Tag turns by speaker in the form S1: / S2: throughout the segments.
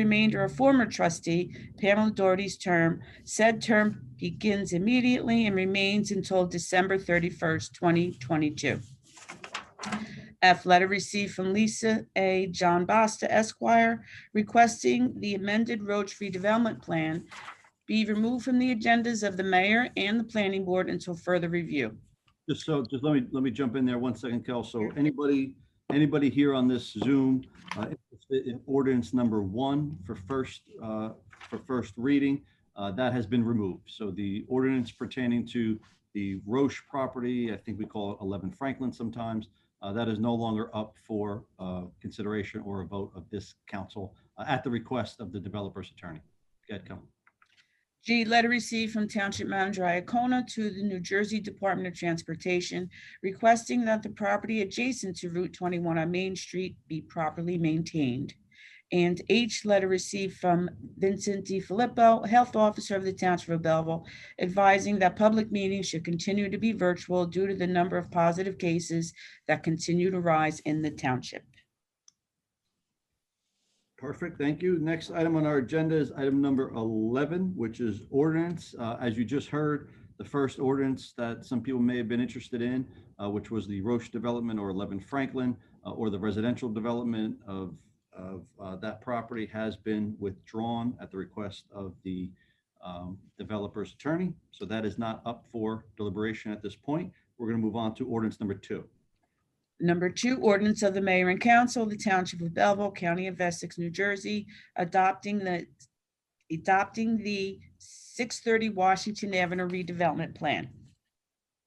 S1: remainder of former trustee Pamela Doherty's term. Said term begins immediately and remains until December thirty-first, twenty twenty-two. F, letter received from Lisa A. John Basta Esquire requesting the amended Roach redevelopment plan be removed from the agendas of the mayor and the planning board until further review.
S2: Just so, just let me, let me jump in there one second, Kel. So anybody, anybody here on this Zoom, uh, interested in ordinance number one for first, uh, for first reading, uh, that has been removed. So the ordinance pertaining to the Roche property, I think we call it 11 Franklin sometimes, uh, that is no longer up for uh, consideration or a vote of this council uh, at the request of the developer's attorney. Go ahead, Kel.
S1: G, letter received from Township Manager Iacona to the New Jersey Department of Transportation requesting that the property adjacent to Route 21 on Main Street be properly maintained. And H, letter received from Vincent D. Filippo, Health Officer of the Township of Belleville, advising that public meetings should continue to be virtual due to the number of positive cases that continue to rise in the township.
S2: Perfect, thank you. Next item on our agenda is item number 11, which is ordinance. Uh, As you just heard, the first ordinance that some people may have been interested in, uh, which was the Roche development or 11 Franklin, uh, or the residential development of, of uh, that property has been withdrawn at the request of the um, developer's attorney. So that is not up for deliberation at this point. We're going to move on to ordinance number two.
S1: Number two, ordinance of the mayor and council of the township of Belleville, county of Essex, New Jersey, adopting the, adopting the 630 Washington Avenue redevelopment plan.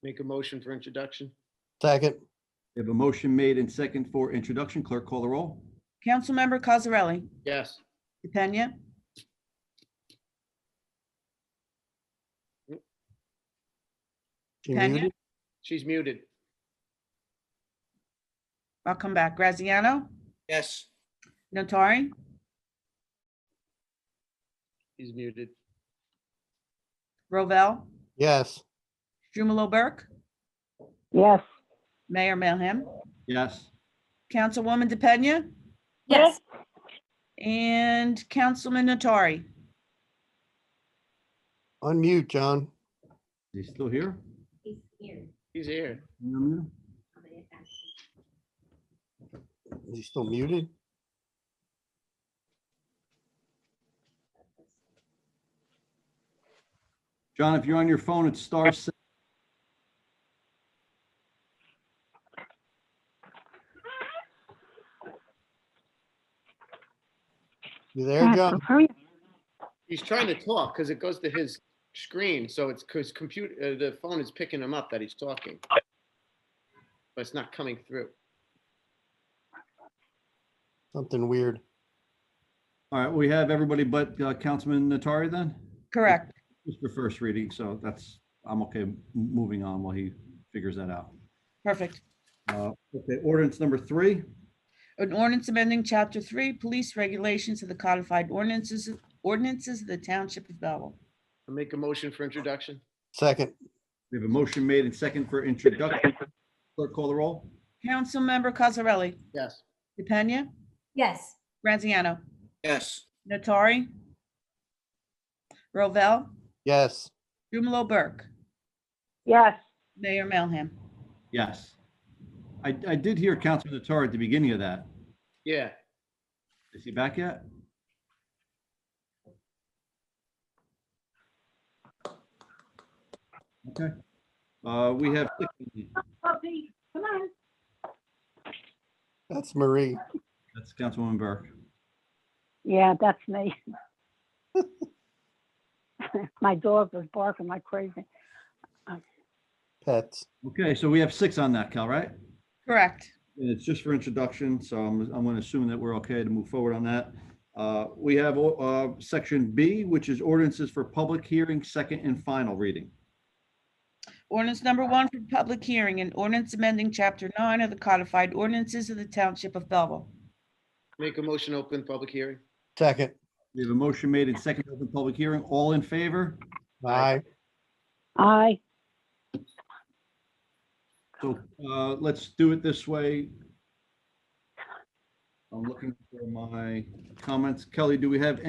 S3: Make a motion for introduction?
S4: Second,
S2: We have a motion made and second for introduction. Clerk, call the roll.
S1: Councilmember Cosarelli,
S3: Yes.
S1: DePena,
S4: she
S1: Tanya?
S4: muted.
S3: She's muted.
S1: I'll come back, Graziano,
S3: Yes.
S1: Notari,
S3: He's muted.
S1: Rovell,
S4: Yes,
S1: Strumelob Burke,
S5: Yes.
S1: Mayor Melham,
S2: Yes.
S1: Councilwoman DePena,
S5: Yes.
S1: and Councilman Notari.
S4: unmute, John.
S2: Is he still here?
S6: He's here.
S3: He's here.
S2: No.
S6: I'm gonna ask him.
S4: Is he still muted?
S2: John, if you're on your phone, it's star six.
S4: You there, John?
S3: He's trying to talk because it goes to his screen, so it's because computer, uh, the phone is picking him up that he's talking. But it's not coming through.
S4: Something weird.
S2: All right, we have everybody but uh, Councilman Natari then?
S1: Correct.
S2: Just for first reading, so that's, I'm okay m- moving on while he figures that out.
S1: Perfect.
S2: Uh, Okay, ordinance number three,
S1: An ordinance amending Chapter 3, Police Regulations of the Codified Ordinances, ordinances of the Township of Belleville.
S3: I Make a motion for introduction?
S4: Second,
S2: we have a motion made and second for introduction. Clerk call the roll?
S1: Councilmember Cosarelli,
S3: Yes.
S1: DePena,
S6: Yes,
S1: Graziano,
S3: Yes.
S1: Natari, Rovell,
S4: yes,
S1: Jumalo Burke,
S5: Yes.
S1: Mayor Melham.
S2: Yes. I, I did hear Councilman Natari at the beginning of that.
S3: Yeah.
S2: Is he back yet? Okay. Uh, We have,
S5: Puppy, come on.
S4: that's Marie.
S2: that's Councilwoman Burke.
S5: Yeah, that's me. My dog was barking like crazy.
S4: Pets.
S2: Okay, so we have six on that, Cal, right?
S1: Correct.
S2: And it's just for introduction, so I'm, I'm going to assume that we're okay to move forward on that. Uh, We have uh, section B, which is ordinances for public hearing, second and final reading.
S1: Ordinance number one for public hearing, an ordinance amending Chapter 9 of the Codified Ordinances of the Township of Belleville.
S3: Make a motion, open public hearing?
S4: Second,
S2: We have a motion made and second open public hearing. All in favor?
S4: aye,
S5: I,
S2: So uh, let's do it this way. I'm looking for my comments. Kelly, do we have any?